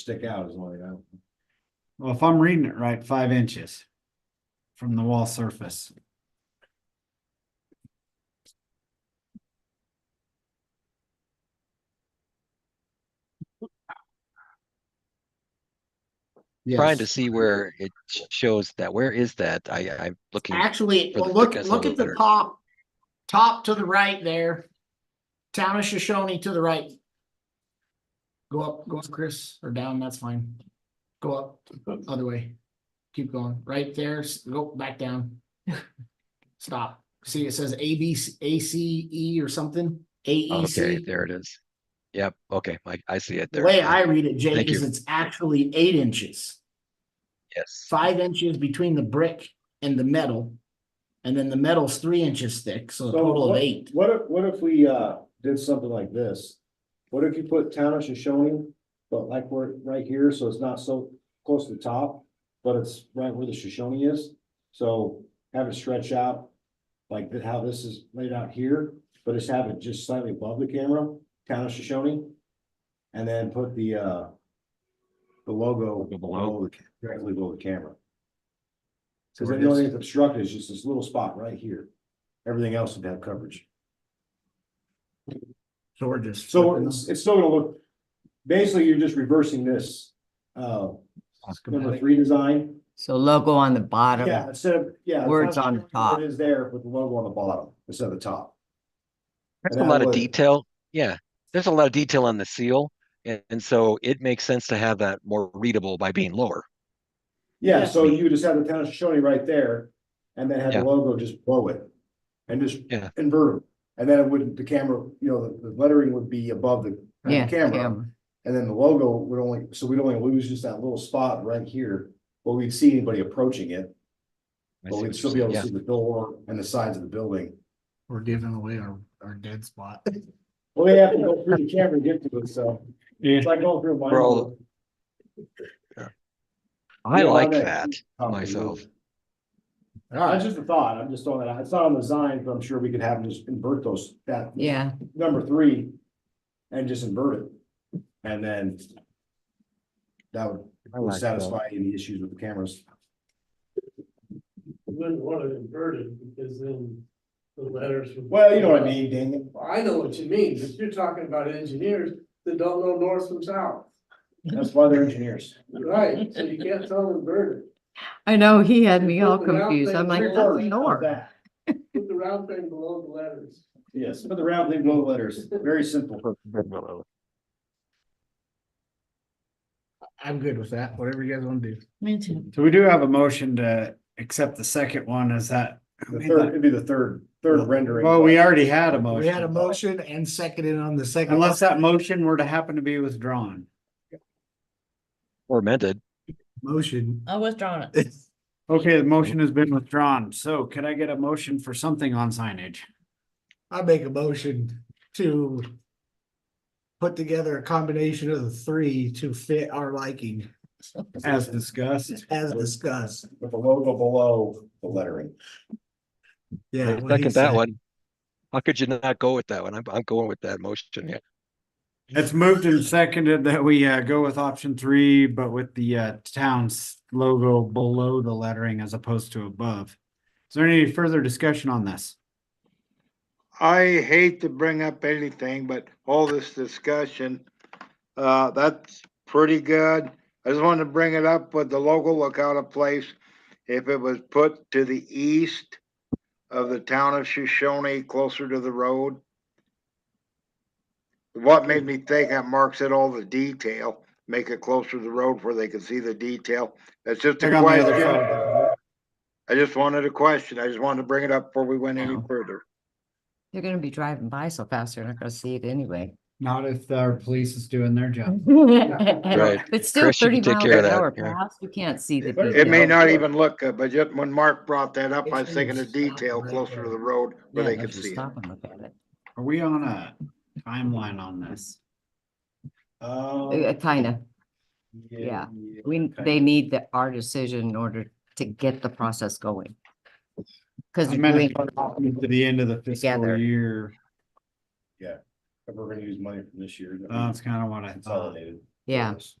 stick out is what I. Well, if I'm reading it right, five inches from the wall surface. Trying to see where it sh- shows that, where is that? I, I'm looking, Actually, for the well, look, thickness a look little at the better. top, top to the right there. Town of Shoshone to the right. Go up, go up, Chris, or down, that's fine. Go up, other way. Keep going, right there, s- go back down. Stop. See, it says A B C- A C E or something, A E okay, C. there it is. Yep, okay, I, I see it The there. way yeah, I read it, Jake, Thank is you. it's actually eight inches. Yes, five inches between the brick and the metal. And then the metal's three inches thick, so a total of eight. What if, what if we, uh, did something like this? What if you put town of Shoshone, but like we're right here, so it's not so close to the top, but it's right where the Shoshone is? So have it stretch out like th- how this is laid out here, but just have it just slightly above the camera, town of Shoshone. And then put the, uh, the logo below, the ca- directly below the camera. Cause the only thing that's obstructed is just this little spot right here. Everything else would have coverage. So we're just. So flipping it's, it's still gonna look, basically, you're just reversing this, uh, number three design. So logo on the bottom. Yeah, instead of, yeah. it's Words not- on the top. It is there with the logo on the bottom instead of the top. there's And a that lot of way- detail, yeah, there's a lot of detail on the seal, and, and so it makes sense to have that more readable by being lower. Yeah, Yeah. so you just have the town of Shoshone right there and then have the Yeah. logo just blow it. And just Yeah. invert them. And then it wouldn't, the camera, you know, the- the lettering would be above the the Yeah, camera. camera. And then the logo would only, so we'd only lose just that little spot right here, but we'd see anybody approaching it. I But see we'd what still you're be able saying, to yeah. see the door and the sides of the building. We're giving away our, our dead spot. Well, they have to go through the camera to get to it, so. It's like going through. a We're all- minefield. I Yeah, a lot like of that, Um, myself. That's just a thought. I'm just throwing that out. It's not on the design, but I'm sure we could have them just invert those, that Yeah, number three. And just invert it. And then. That would- I would like that. satisfy any issues with the cameras. Wouldn't want it inverted because then the letters. would- Well, you know what I mean, dang it. Well, I know what you mean, but you're talking about engineers that don't know north from south. That's why they're engineers. Right, so you can't tell inverted. I know, he had me all Well, the round confused. I'm thing like, is that's Reverse, how's north. that? Put the round thing below the letters. Yes, but the round leave no letters. Very simple. I'm good with that, whatever you guys wanna do. Me too. So we do have a motion to accept the second one, is that? who The made third, that? it'd be the third, third rendering. Well, we already had a motion. We had a motion and seconded on the second. Unless that motion were to happen to be withdrawn. Or amended, Motion. I was drawing it. Okay, the motion has been withdrawn, so could I get a motion for something on signage? I make a motion to put together a combination of the three to fit our liking As discussed, as discussed. With the logo below the lettering. Yeah. what he second that said. one. How could you not go with that one? I'm, I'm going with that motion, yeah. it's moved and seconded that we uh go with option three, but with the uh town's logo below the lettering as opposed to above. Is there any further discussion on this? I hate to bring up anything, but all this discussion, uh, that's pretty good. I just wanted to bring it up, but the local look out of place. If it was put to the east of the town of Shoshone, closer to the road. What made me think that marks it all the detail, make it closer to the road where they can see the detail. That's just Check a on the other question. side. I just wanted a question. I just wanted to bring it up before we went any further. You're gonna be driving by so fast, you're not gonna see it anyway. Not if our police is doing their job. Right. But still Chris, you thirty can take miles care of an that, hour yeah. past, you can't see the But detail. It may not even look good, but just when Mark brought that up, I It's was thinking gonna of stop detail right closer to there. the road where Yeah, they if could you see it. stop and look at it. Are we on a timeline on this? Uh, Um, Kinda, yeah. we, okay. they need the, our decision in order to get the process going. Cause I you're meant doing, if we're To the end of the fiscal Together. year, If we're gonna use money from this year. Mm-hmm. Uh, that's kind of what I thought. Consolidated. yeah, Yes.